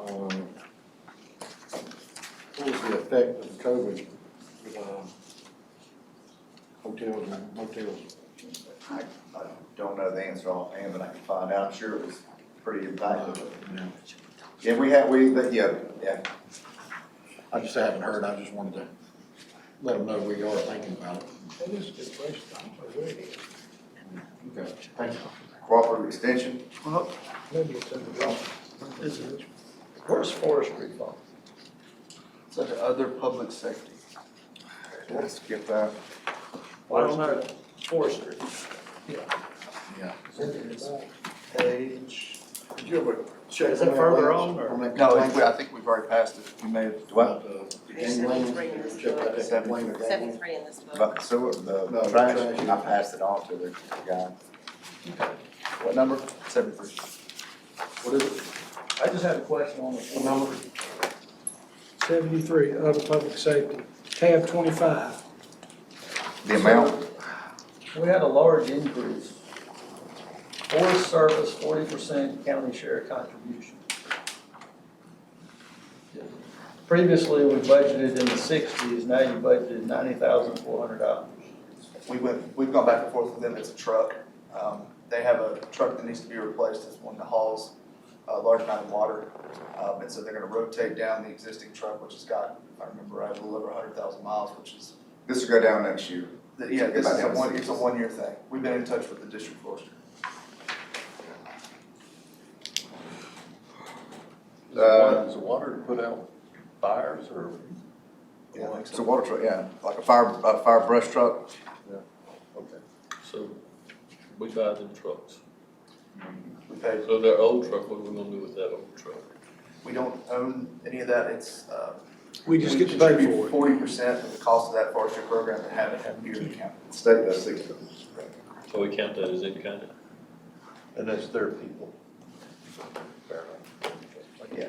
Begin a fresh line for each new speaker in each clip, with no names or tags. um, effect of COVID with, um, hotels and motels.
I, I don't know the answer offhand, but I can find out, I'm sure it was pretty impactful.
Yeah.
Yeah, we had, we, but, yeah, yeah,
I just haven't heard, I just wanted to let them know we are thinking about it.
That is a good question, I don't know where it is.
Okay, thank you.
cooperative extension,
Maybe it's in the wrong.
Is it? Where's forestry from?
It's under other public safety.
let's skip that.
I don't know. Forestry.
Yeah.
It's in the back.
Page.
Did you ever check?
Is it further on or?
that
No,
complaint
it's- I think we've already passed it. We may have,
What,
about, uh,
Page
gang language?
seventy-three in this
Check out that
book.
complaint of gang language.
Seventy-three in this book.
about the sewer, the
No, the
trash,
trash.
I passed it on to the guy. What number? Seventy-three.
What is it?
I just had a question on
What number?
Seventy-three, other public safety, tab twenty-five.
The amount,
We had a large increase. Forest Service, forty percent county share contribution. Previously, we budgeted in the sixties, now you budgeted ninety thousand four hundred dollars.
we went, we've gone back and forth with them. It's a truck. Um, they have a truck that needs to be replaced. It's one that hauls a large amount of water. Um, and so they're gonna rotate down the existing truck, which has got, if I remember right, a little over hundred thousand miles, which is,
this will go down next year.
that- yeah, this is a
About
one,
76.
it's a one-year thing. We've been in touch with the district forester.
Uh,
Is the water to put out fires or?
Yeah, it's a water truck, yeah, like a fire, a fire brush truck.
Okay. So we buy them trucks.
We paid
So their old truck, what are we gonna do with that old truck?
We don't own any of that, it's, uh.
We just get to pay for it.
Forty percent of the cost of that forestry program to have it have here in the county.
State does six of them.
So we count that as in kind of?
And that's their people.
Yeah.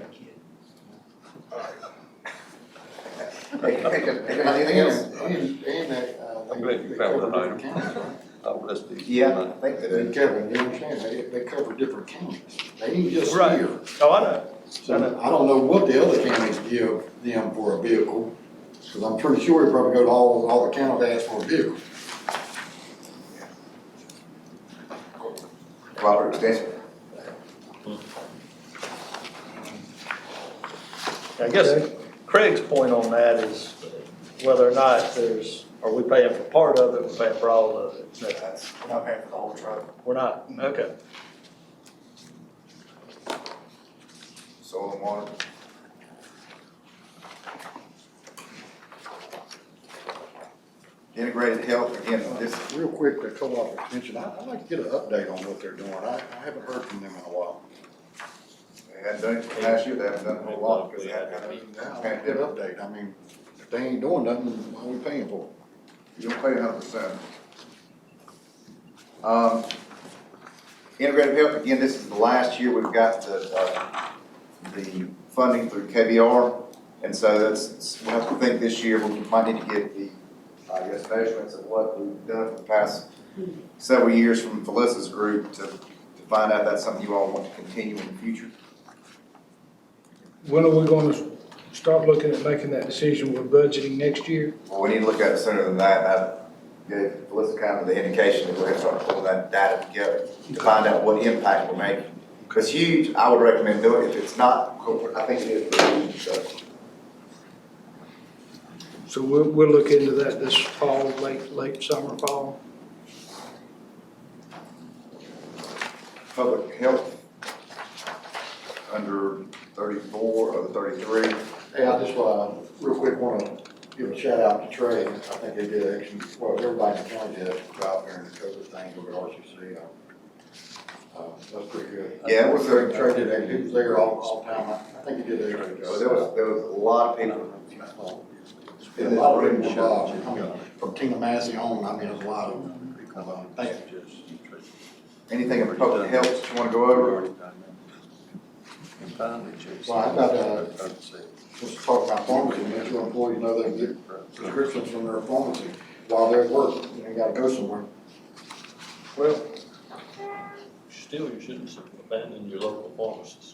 Anything else?
And, and that, uh, they-
I'm glad you
they
found
cover
that
different counties,
Oh, that's the.
Yeah, I think they
right? And
do.
Kevin, you understand, they, they cover different counties, they ain't just
Right.
here.
Oh, I know.
So I don't know what the other counties give them for a vehicle, because I'm pretty sure it probably go to all, all the counties to ask for a vehicle.
Cooperative extension.
I guess Craig's point on that is whether or not there's, are we paying for part of it, we're paying for all of it? No,
That's, we're not paying for the whole truck.
We're not, okay.
Soil and water. Integrated health, again, this,
Real quick, the co-op extension, I, I'd like to get an update on what they're doing, I, I haven't heard from them in a while.
they hadn't done it for last year, they haven't done a whole lot because they had
Now, I want to get an update, I mean, if they ain't doing nothing, why are we paying for it?
You'll pay a hundred percent. Um, integrative health, again, this is the last year we've got the, uh, the funding through KBR. And so that's, we have to think this year, we might need to get the, I guess, measurements of what we've done for the past several years from Felissa's group to, to find out if that's something you all want to continue in the future.
When are we gonna start looking at making that decision, we're budgeting next year?
Well, we need to look at it sooner than that, and I gave Melissa kind of the indication that we're gonna start pulling that data together to find out what impact we're making. If it's huge, I would recommend doing it, if it's not, I think it is pretty huge, so.
So we'll, we'll look into that this fall, late, late summer, fall.
Public health, under thirty-four or thirty-three,
Hey, I just, uh, real quick, wanna give a shout out to Trey, I think they did action, well, everybody in the county did a good job during the COVID thing over at RCC, uh, uh, that's pretty good.
Yeah, it was a-
Trey did, a- he was there all, all the time, I think he did a good
so there was,
job.
there was a lot of people.
Did a lot of people, involved. I mean, from King of Massey on, I mean, there's a lot of, uh, thank you.
Anything in public health that you wanna go over?
And finally, Jason.
Well, I've got, uh, Just talk about pharmacy, make sure employees know they can get prescriptions from their pharmacy while they're at work, you ain't gotta go somewhere.
Well, still, you shouldn't abandon your local pharmacists.